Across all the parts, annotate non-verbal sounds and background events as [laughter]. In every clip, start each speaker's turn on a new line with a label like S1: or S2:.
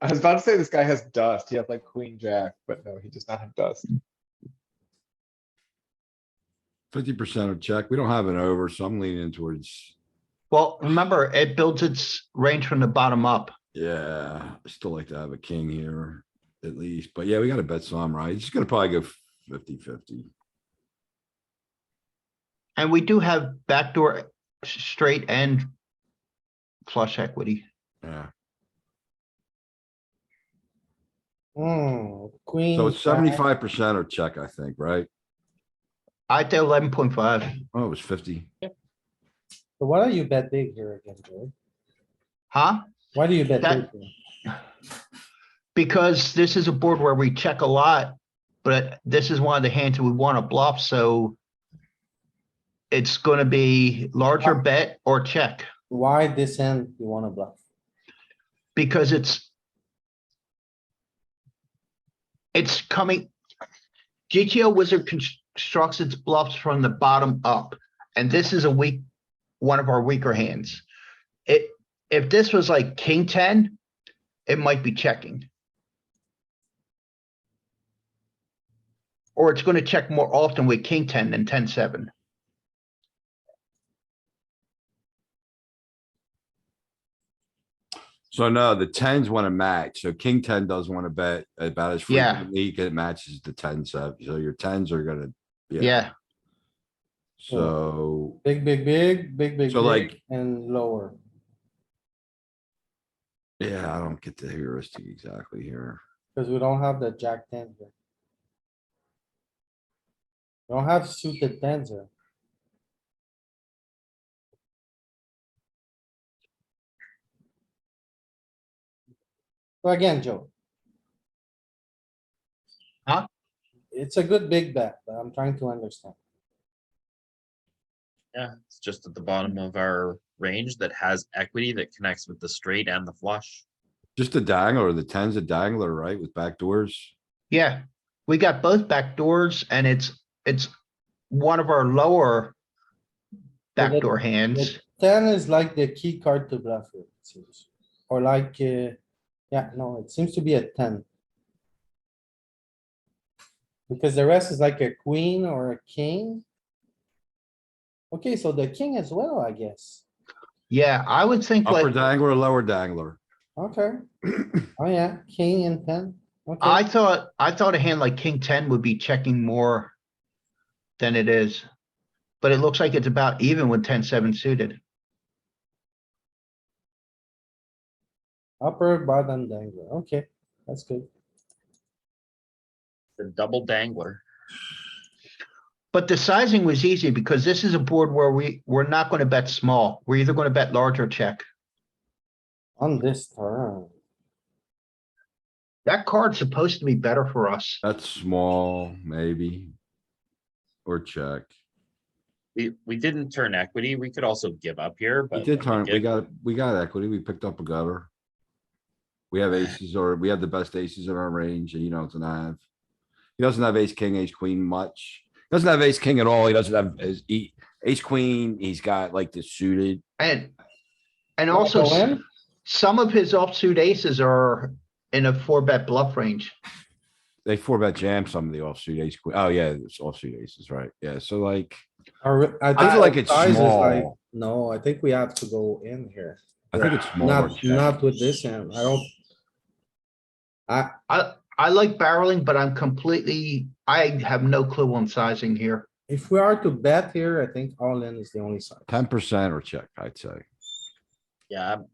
S1: I was about to say this guy has dust. He has like queen jack, but no, he does not have dust.
S2: Fifty percent of check. We don't have an over, so I'm leaning towards,
S3: Well, remember, it builds its range from the bottom up.
S2: yeah, I still like to have a king here at least, but yeah, we gotta bet some, right? It's gonna probably go 50 50.
S3: And we do have backdoor s- straight and flush equity.
S2: Yeah,
S1: Hmm, queen.
S2: so it's
S1: jack.
S2: seventy-five percent of check, I think, right?
S3: I did eleven point five.
S2: Oh, it was fifty.
S4: So why do you bet big here again, Joey?
S3: Huh?
S4: Why do you bet big?
S3: That-
S4: here?
S3: Because this is a board where we check a lot, but this is one of the hands that we want to bluff, so it's gonna be larger bet or check
S4: Why this end you wanna bluff?
S3: because it's it's coming. GTO wizard constructs its bluffs from the bottom up, and this is a weak, one of our weaker hands. It, if this was like king ten, it might be checking. Or it's gonna check more often with king ten than ten seven.
S2: So no, the tens wanna match, so king ten does wanna bet about as
S3: Yeah.
S2: frequently, 'cause it matches the tens up, so your tens are gonna, Yeah.
S3: Yeah,
S2: so.
S4: Big, big, big, big, big,
S2: So,
S4: big,
S2: like-
S4: and lower.
S2: Yeah, I don't get the heuristic exactly here.
S4: Cause we don't have the jack ten here. We Don't have suited tens here. So again, Joe.
S3: Huh?
S4: It's a good big bet, but I'm trying to understand.
S5: Yeah, it's just at the bottom of our range that has equity that connects with the straight and the flush.
S2: Just a dangler, the tens a dangler, right, with backdoors?
S3: yeah. We got both back doors and it's, it's one of our lower
S4: that-
S3: backdoor hands.
S4: The Ten is like the key card to bluff here, it seems, or like, uh, yeah, no, it seems to be a ten. Because the rest is like a queen or a king. Okay, so the king as well, I guess.
S3: Yeah, I would think
S2: Upper
S3: like,
S2: dangler, lower dangler.
S3: [coughs]
S4: Okay. Oh, yeah, king and ten.
S3: I
S4: Okay,
S3: thought, I thought a hand like king ten would be checking more than it is. But it looks like it's about even with ten seven suited.
S4: upper, bottom, dangler. Okay, that's good.
S5: The double dangler.
S3: But the sizing was easy because this is a board where we, we're not gonna bet small. We're either gonna bet large or check.
S4: On this turn,
S3: That card's supposed to be better for us.
S2: That's small, maybe. Or check.
S5: We, we didn't turn equity. We could also give up here, but.
S2: We did turn,
S5: when
S2: we
S5: give-
S2: got, we got equity, we picked up a gutter. We have aces or we have the best aces in our range and you don't have. He doesn't have ace, king, ace, queen much. He Doesn't have ace, king at all. He doesn't have his e- ace, queen. He's got like the suited.
S3: And, and
S4: Wanna
S3: also,
S4: go
S3: s-
S4: in?
S3: some of his offsuit aces are in a four bet bluff range.
S2: They four bet jam some of the offsuit ace, queen. Oh yeah, it's offsuit aces, right? Yeah, so like.
S4: Or- I
S2: I
S4: think
S2: feel like it's
S4: size is like-
S2: small.
S4: No, I think we have to go in here.
S2: I think it's smaller.
S4: Not, not with this hand, I don't. I,
S3: I, I like barreling, but I'm completely, I have no clue on sizing here.
S4: if we are to bet here, I think all in is the only side.
S2: Ten percent or check, I'd say.
S5: Yeah. I'm-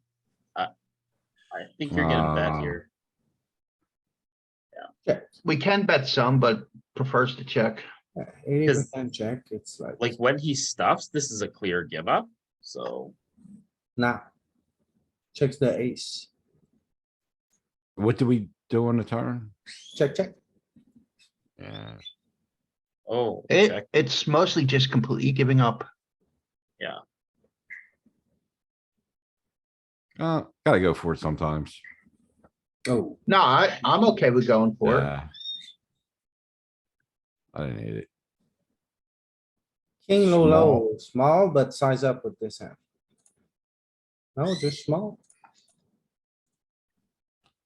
S5: I, I think you're getting bet
S2: Wow.
S5: here.
S3: We can bet some, but prefers to check.
S4: Eighty
S5: Cause-
S4: percent check, it's like,
S5: Like when he stuffs, this is a clear give up. So
S4: nah. Checks the ace,
S2: What do we do on the turn?
S4: check, check,
S2: Yeah.
S5: oh,
S3: It,
S5: check.
S3: it's mostly just completely giving up.
S2: Uh, gotta go for it sometimes.
S4: oh,
S3: No, I, I'm okay with going for it.
S2: Yeah. I didn't need it.
S4: king low, low, small, but size up with this hand. No, just small,